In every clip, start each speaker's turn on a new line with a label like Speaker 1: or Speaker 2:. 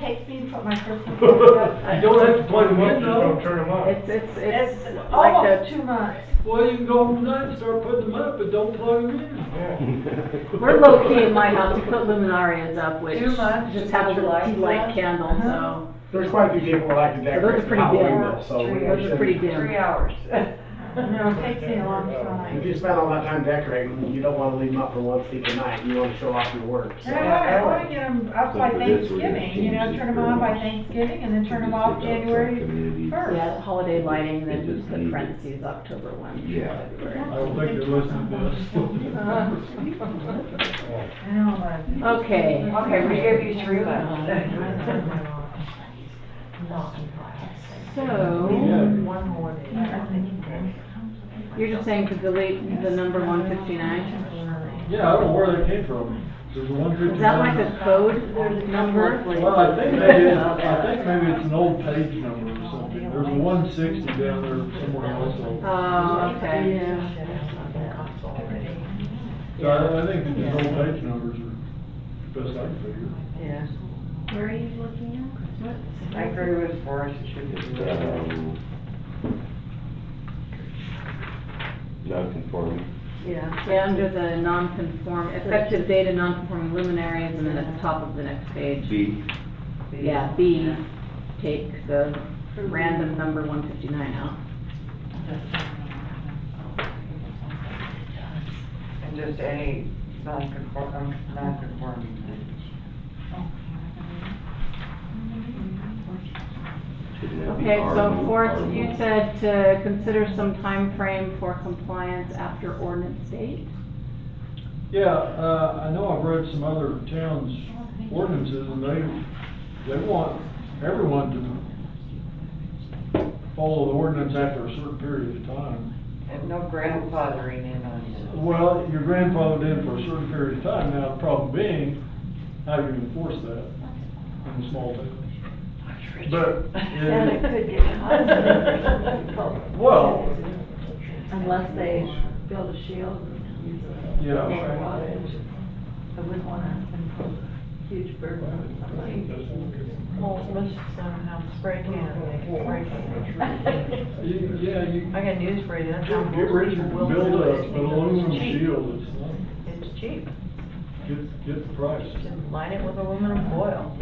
Speaker 1: takes me from my personal
Speaker 2: You
Speaker 1: website.
Speaker 2: don't have to plug them in,
Speaker 3: Just
Speaker 2: though.
Speaker 3: don't turn them on.
Speaker 4: It's, it's, it's
Speaker 1: It's
Speaker 4: like a
Speaker 1: almost two months.
Speaker 2: Well, you can go online and start putting them up, but don't plug them in.
Speaker 3: Yeah.
Speaker 4: We're low key in my house, we put luminarias up, which
Speaker 1: Too much,
Speaker 4: just have a
Speaker 1: too
Speaker 4: little
Speaker 1: much
Speaker 4: tea
Speaker 1: light.
Speaker 4: light candle,
Speaker 1: Uh-huh.
Speaker 4: so.
Speaker 5: There's quite a few people who like to
Speaker 4: So those
Speaker 5: decorate for
Speaker 4: are pretty dim.
Speaker 5: Halloween though, so. we
Speaker 4: Those are pretty
Speaker 5: should-
Speaker 4: dim.
Speaker 1: hours. No, it takes me a long
Speaker 5: If
Speaker 1: time.
Speaker 5: you spend all that time decorating, you don't wanna leave them up for one sleepy night, you wanna show off your work, so.
Speaker 1: And I want, I want to get them up by Thanksgiving, you know, turn them on by Thanksgiving and then turn them off January. first.
Speaker 4: Yeah, holiday lighting, then
Speaker 6: It
Speaker 4: just
Speaker 6: just
Speaker 4: put
Speaker 6: needed-
Speaker 4: parentheses, October one.
Speaker 6: Yeah.
Speaker 2: I don't think they're listening to us.
Speaker 4: Uh-huh.
Speaker 1: I know, but.
Speaker 4: Okay.
Speaker 7: Okay, we gave you three left.
Speaker 1: I
Speaker 4: So,
Speaker 7: One more day.
Speaker 4: you're just saying to delete the number one fifty-nine?
Speaker 2: Yeah, I don't know where they came from. There's a one fifty-nine.
Speaker 4: Is that like a code number?
Speaker 2: Well, I think maybe, it's- I think maybe it's an old page number or something. There's a one sixty down there somewhere also.
Speaker 4: Oh, okay.
Speaker 2: So I, I think that these old page numbers are best I can figure.
Speaker 7: Yeah,
Speaker 1: Where are you looking
Speaker 7: I agree with Forrest, it should be. uh,
Speaker 6: Non-conforming.
Speaker 7: Yeah.
Speaker 4: Yeah, under the non-conform, effective date of non-conforming luminaries, and then at the top of the next page.
Speaker 6: B,
Speaker 4: Yeah, B, take the random number one fifty-nine out.
Speaker 7: And just any non-conform, non-conforming thing.
Speaker 6: shouldn't that be
Speaker 4: Okay, so
Speaker 6: R1,
Speaker 4: for,
Speaker 6: R1?
Speaker 4: you said to consider some time frame for compliance after ordinance date?
Speaker 2: Yeah, uh, I know I've read some other towns' ordinances, and they, they want everyone to follow the ordinance after a certain period of time.
Speaker 7: And no grandfathering in on
Speaker 2: Well, your grandfathered in for a certain period of time, now, the problem being, how do you enforce that in a small town?
Speaker 7: it.
Speaker 2: But,
Speaker 1: And it
Speaker 2: yeah,
Speaker 1: could get hot.
Speaker 2: well,
Speaker 1: Unless they build a shield and use it.
Speaker 2: yeah, right.
Speaker 1: I wouldn't wanna impose a huge burden on somebody.
Speaker 7: Well, let's somehow spray can, they can spray can.
Speaker 2: You- yeah, you,
Speaker 7: I got news for you, that's how
Speaker 2: get
Speaker 7: most
Speaker 2: ready to
Speaker 7: people will
Speaker 2: build
Speaker 7: do
Speaker 2: a,
Speaker 7: it.
Speaker 2: an aluminum
Speaker 7: It's cheap.
Speaker 2: shield, it's, not-
Speaker 7: It's cheap,
Speaker 2: get, get the price.
Speaker 7: just line it with aluminum foil.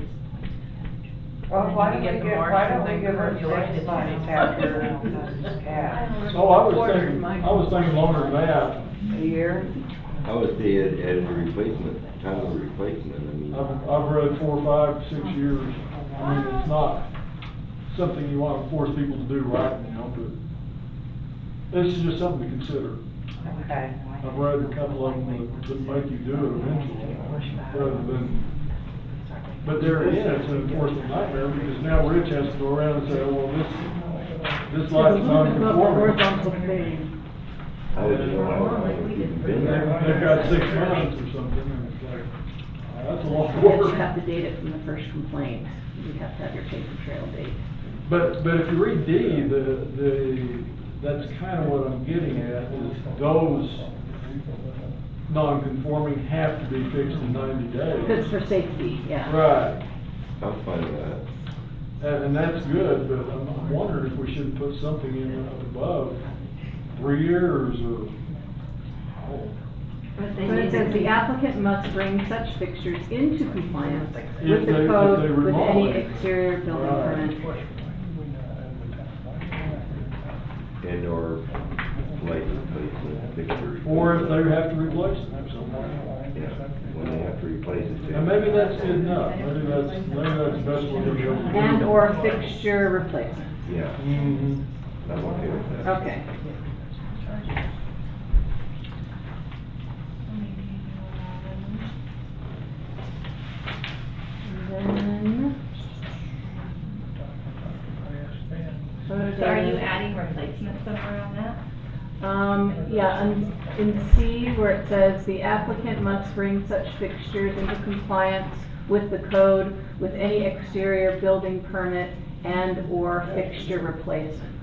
Speaker 8: Well, why don't they give, why don't they give her six months after?
Speaker 7: after
Speaker 2: Oh, I was thinking, I was thinking longer than that.
Speaker 7: a year?
Speaker 6: I would say it at a replacement, time of replacement, I mean.
Speaker 2: I've, I've read four, five, six years, I mean, it's not something you wanna force people to do right now, but this is just something to consider.
Speaker 8: Okay.
Speaker 2: I've read a couple of them that, that make you do it eventually, rather than, but there again, it's an enforcement nightmare, because now Rich has to go around and say, "Oh, well, this, this light's non-conforming.
Speaker 4: Horizontal thing.
Speaker 6: I would know, I would even
Speaker 2: They've,
Speaker 6: been there.
Speaker 2: they've got six months or something, and it's like, that's a lot of
Speaker 4: You have to
Speaker 2: work.
Speaker 4: have the data from the first complaint, you have to have your paper trail date.
Speaker 2: But, but if you read D, the, the, that's kind of what I'm getting at, is those non-conforming have to be fixed in ninety
Speaker 4: Because
Speaker 2: days.
Speaker 4: for safety, yeah.
Speaker 2: Right,
Speaker 6: I'm fine with that.
Speaker 2: and, and that's good, but I'm- I'm wondering if we should put something in up above, three years or, oh,
Speaker 1: But
Speaker 4: But it says the applicant must bring such fixtures into compliance with
Speaker 2: If they-
Speaker 4: the
Speaker 2: if they
Speaker 4: code, with
Speaker 2: remodel
Speaker 4: any
Speaker 2: it.
Speaker 4: exterior building
Speaker 2: Right.
Speaker 4: permit.
Speaker 6: And or light replacement, fixture.
Speaker 2: or if they have to replace them somehow.
Speaker 6: Yeah, when they have to replace it.
Speaker 2: And maybe that's good enough, maybe that's, maybe that's the best way to go.
Speaker 4: And or fixture replacement,
Speaker 6: Yeah,
Speaker 2: Mhm.
Speaker 6: I'm okay with that.
Speaker 4: okay. And then, photo
Speaker 8: So are you
Speaker 4: data.
Speaker 8: adding replacement somewhere on that?
Speaker 4: Um, yeah, and in C where it says the applicant must bring such fixtures into compliance with the code with any exterior building permit and/or fixture replacement.